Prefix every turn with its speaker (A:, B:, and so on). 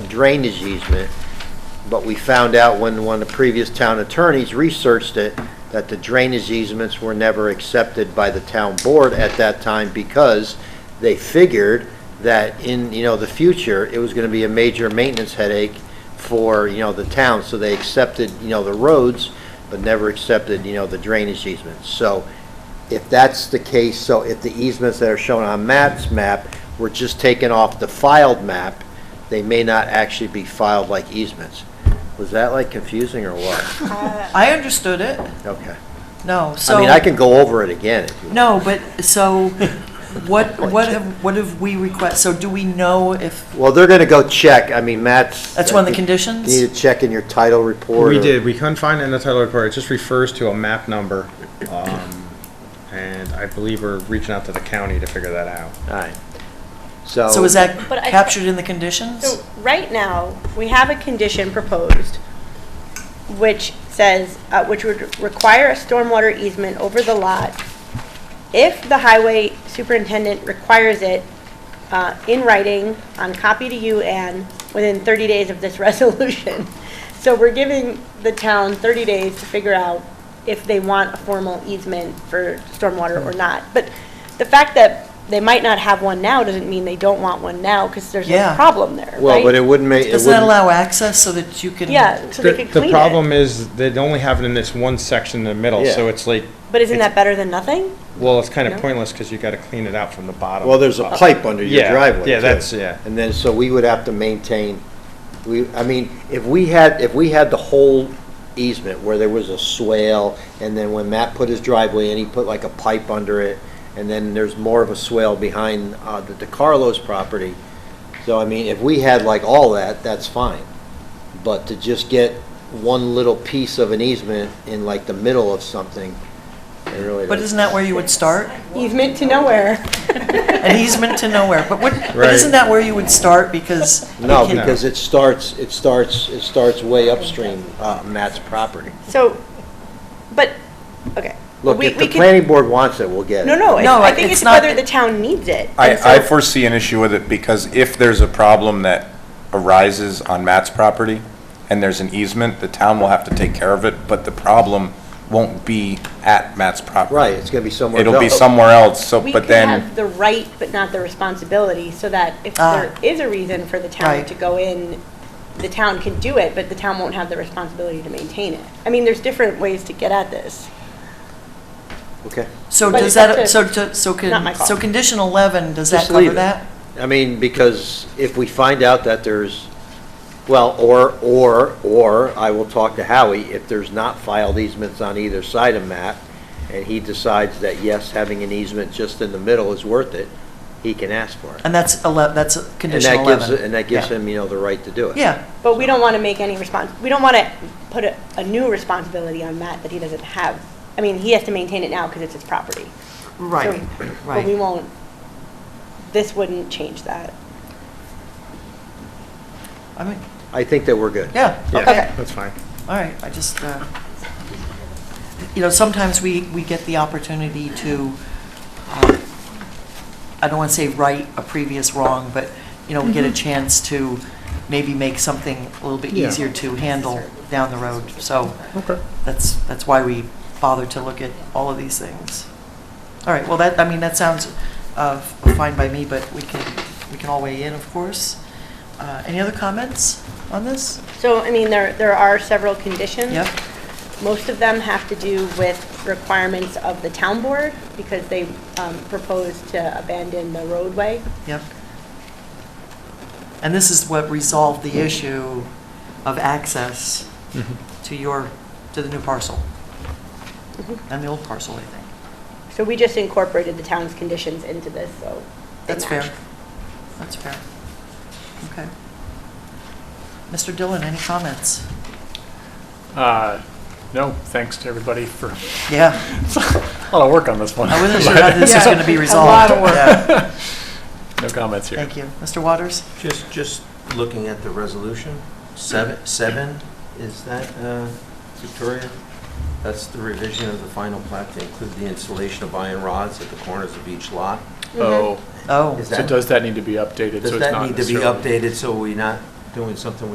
A: drainage easement, but we found out when one of the previous town attorneys researched it, that the drainage easements were never accepted by the town board at that time because they figured that in, you know, the future, it was gonna be a major maintenance headache for, you know, the town, so they accepted, you know, the roads, but never accepted, you know, the drainage easements. So if that's the case, so if the easements that are shown on Matt's map were just taken off the filed map, they may not actually be filed like easements. Was that like confusing or what?
B: I understood it.
A: Okay.
B: No, so.
A: Uh, I mean, I can go over it again if you want.
B: No, but, so, what, what have, what have we request, so do we know if,
A: Well, they're gonna go check, I mean, Matt's.
B: That's one of the
A: I think-
B: conditions?
A: You Need to check in your title report.
C: We
A: or-
C: did, we couldn't find it in the title report, it just refers to a map number. um, And I believe we're reaching out to the county to figure that out.
A: All right. So.
B: so is that
D: But I-
B: captured in the conditions?
D: So, right now, we have a condition proposed which says, uh, which would require a stormwater easement over the lot if the highway superintendent requires it uh, in writing on copy to you, Anne, within 30 days of this resolution. So we're giving the town 30 days to figure out if they want a formal easement for stormwater or not. But the fact that they might not have one now doesn't mean they don't want one now, because there's
B: Yeah.
D: a problem there, right?
A: Well, but it wouldn't make. it
B: Doesn't that
A: wouldn't-
B: allow access so that you can?
D: Yeah, so they
C: The-
D: could clean it.
C: The problem is, they only have it in this one section in the middle, so
A: Yeah.
C: it's like,
D: But isn't that better than nothing?
C: well, it's kind of
D: No.
C: pointless, because you gotta clean it out from the bottom. Uh,
A: Well, there's a
C: up.
A: pipe under your
C: Yeah,
A: driveway.
C: yeah,
A: too.
C: that's- yeah.
A: And then, so we would have to maintain, we, I mean, if we had, if we had the whole easement where there was a swale, and then when Matt put his driveway in, he put like a pipe under it, and then there's more of a swale behind, uh, the DeCarlos property. So, I mean, if we had like all that, that's fine. But to just get one little piece of an easement in like the middle of something, it really doesn't.
B: But isn't that where you would start?
D: Easement to nowhere.
B: An easement to nowhere, but what, but
C: Right.
B: isn't that where you would start because? you
A: No,
B: can-
A: because it starts, it starts, it starts way upstream, uh, Matt's property.
D: So, but, okay.
A: Look,
D: We-
A: if the
D: we could-
A: planning board wants it, we'll get it.
D: No, no, it's-
B: No,
D: I think
B: it's
D: it's
B: not-
D: whether the town needs it. And so-
E: I, I foresee an issue with it because if there's a problem that arises on Matt's property and there's an easement, the town will have to take care of it, but the problem won't be at Matt's property.
A: Right, it's gonna be somewhere else.
E: It'll be somewhere else, so,
D: We
E: but
D: could
E: then,
D: have the right, but not the responsibility, so that if
B: Ah.
D: there is a reason for the town
B: Right.
D: to go in, the town can do it, but the town won't have the responsibility to maintain it. I mean, there's different ways to get at this.
A: Okay.
B: So
D: But
B: does
D: that's
B: that,
D: a-
B: so, to- so
D: not my
B: can,
D: call.
B: so condition eleven, does that
A: Just leave
B: cover
A: it.
B: that?
A: I mean, because if we find out that there's, well, or, or, or, I will talk to Howie, if there's not filed easements on either side of Matt, and he decides that, yes, having an easement just in the middle is worth it, he can ask for it.
B: And that's ele, that's
A: And
B: condition
A: that gives,
B: eleven.
A: and that gives
B: Yeah.
A: him, you know, the right to do it.
B: Yeah,
D: But we don't want to make any respons, we don't want to put a, a new responsibility on Matt that he doesn't have. I mean, he has to maintain it now because it's his property.
B: right,
D: So- But we
B: right.
D: won't, this wouldn't change that.
B: I mean,
A: I think that we're good.
B: yeah, okay.
C: Yeah, that's fine.
B: All right, I just, uh, you know, sometimes we, we get the opportunity to, uh, I don't want to say right a previous wrong, but, you know, get a chance to maybe make something a little bit
C: Mm-hmm. Yeah.
B: easier to handle down the road. So
C: Okay.
B: that's, that's why we bother to look at all of these things. All right, well, that, I mean, that sounds uh, fine by me, but we can, we can all weigh in, of course. Uh, Any other comments on this?
D: So, I mean, there, there are several conditions.
B: Yep,
D: Most of them have to do with requirements of the town board because they um, propose to abandon the roadway.
B: yep. And this is what resolved the issue of access to your, to the new parcel and the old parcel, I think.
D: So we just incorporated the town's conditions into this, so. they
B: That's
D: match.
B: fair. That's fair. Okay. Mr. Dillon, any comments?
F: Uh, No, thanks to everybody for a
B: Yeah,
F: lot of work on this one.
B: I wasn't sure how this is going to be resolved. Yeah,
F: No comments here.
B: Thank you. Mr. Waters?
G: Just, just looking at the resolution, seven, seven, is that, uh, Victoria? That's the revision of the final plat to include the installation of iron rods at the corners of each lot.
F: Oh,
B: Oh,
G: Is
F: so
G: that-
F: does that need to be updated? So
G: Does
F: it's
G: that
F: not
G: need to be
F: necessarily-
G: updated so we not, doing something